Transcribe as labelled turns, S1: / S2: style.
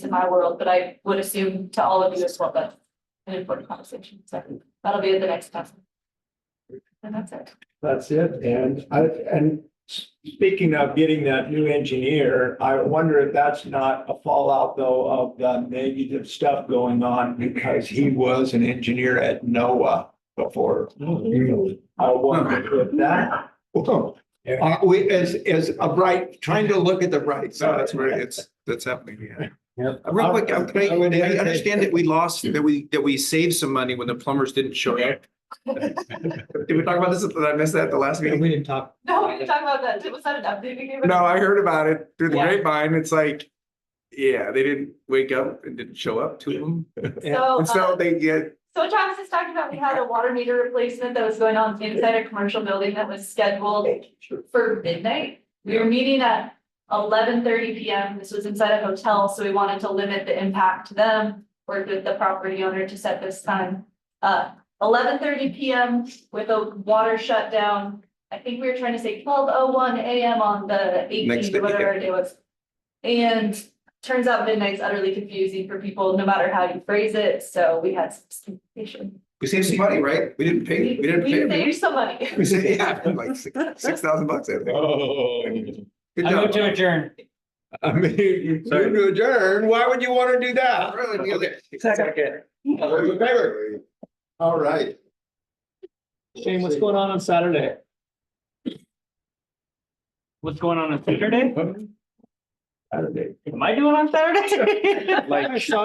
S1: in my world, but I would assume to all of you as well, that's an important conversation, so that'll be at the next time. And that's it.
S2: That's it, and I, and speaking of getting that new engineer, I wonder if that's not a fallout though of the negative stuff going on because he was an engineer at NOAA before. I wonder if that,
S3: Well,
S2: Yeah.
S3: uh, we, as, as a bright, trying to look at the bright
S2: No,
S3: side.
S2: that's
S3: where it's, that's happening, yeah.
S4: Yeah.
S3: Real quick, I'm- can
S2: I would
S3: I, I
S2: entertain-
S3: understand that we lost, that we, that we saved some money when the plumbers didn't show up. Did we talk about this? Did I miss that at the last meeting?
S4: We didn't talk.
S1: No, we didn't talk about that, was that an update we gave?
S3: No, I heard about it through the
S1: Yeah.
S3: grapevine. It's like, yeah, they didn't wake up and didn't show up to them.
S1: So,
S3: And so
S1: uh,
S3: they get,
S1: so Travis has talked about, we had a water meter replacement that was going on inside a commercial building that was scheduled for midnight. We were meeting at eleven thirty P M. This was inside a hotel, so we wanted to limit the impact to them. Worked with the property owner to set this time. Uh, eleven thirty P M with a water shutdown. I think we were trying to say twelve oh one A M on the
S3: Next
S1: eighteenth,
S3: day, yeah.
S1: whatever it was. And turns out midnight's utterly confusing for people, no matter how you phrase it, so we had some communication.
S3: we saved some money, right? We didn't pay, we didn't
S1: We
S3: pay.
S1: saved some money.
S3: We saved, yeah, like six, six thousand bucks, I think.
S4: Oh.
S3: Good
S4: I
S3: job.
S4: moved to adjourn.
S2: I mean, you
S4: Sorry.
S2: to adjourn, why would you want to do that?
S3: Really, we got it.
S4: Second.
S2: All those in favor? All right.
S4: Shane, what's going on on Saturday? What's going on on Saturday?
S2: Saturday.
S4: Am I doing on Saturday?
S2: Like-
S4: I saw